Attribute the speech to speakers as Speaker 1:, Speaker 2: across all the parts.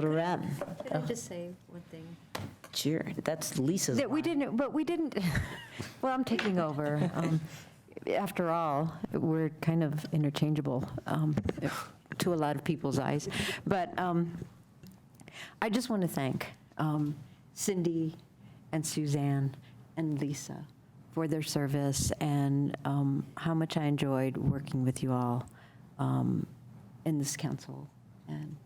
Speaker 1: Little Red,
Speaker 2: Could I just say one thing?
Speaker 1: sure, that's Lisa's
Speaker 3: That we
Speaker 1: line.
Speaker 3: didn't, but we didn't, well, I'm taking over. Um, After all, we're kind of interchangeable um, to a lot of people's eyes. But um, I just want to thank um, Cindy and Suzanne and Lisa for their service and um, how much I enjoyed working with you all um, in this council. And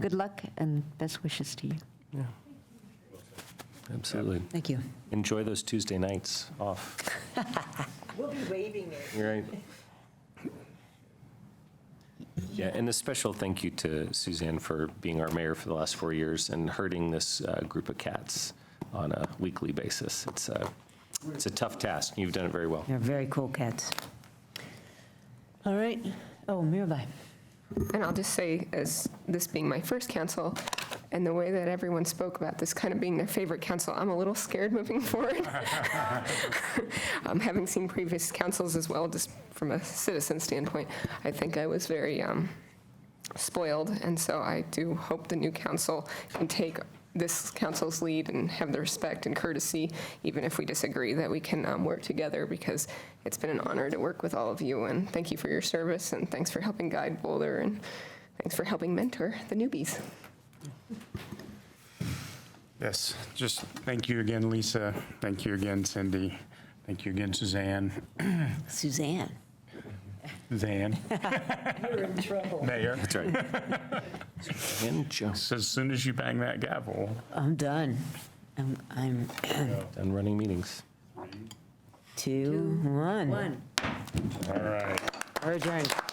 Speaker 3: good luck and best wishes to you.
Speaker 4: Absolutely.
Speaker 1: Thank you.
Speaker 4: Enjoy those Tuesday nights off.
Speaker 5: We'll be waving it.
Speaker 4: You're Right. Yeah, and a special thank you to Suzanne for being our mayor for the last four years and herding this uh, group of cats on a weekly basis. It's a, it's a tough task. You've done it very well.
Speaker 1: They're very cool cats. All right, oh, Mirabai.
Speaker 6: And I'll just say, as this being my first council, and the way that everyone spoke about this kind of being their favorite council, I'm a little scared moving forward. Um, Having seen previous councils as well, just from a citizen standpoint, I think I was very um, spoiled. And so I do hope the new council can take this council's lead and have the respect and courtesy, even if we disagree, that we can um, work together because it's been an honor to work with all of you. And thank you for your service and thanks for helping guide Boulder and thanks for helping mentor the newbies.
Speaker 7: Yes, just thank you again, Lisa. Thank you again, Cindy. Thank you again, Suzanne.
Speaker 1: Suzanne.
Speaker 7: Zan,
Speaker 5: You're in trouble.
Speaker 7: Mayor.
Speaker 4: That's right. And Joe.
Speaker 7: So As soon as you bang that gavel,
Speaker 1: I'm done. I'm, I'm
Speaker 4: Done running meetings.
Speaker 1: two, one.
Speaker 2: One.
Speaker 7: all right.
Speaker 1: We're adjourned.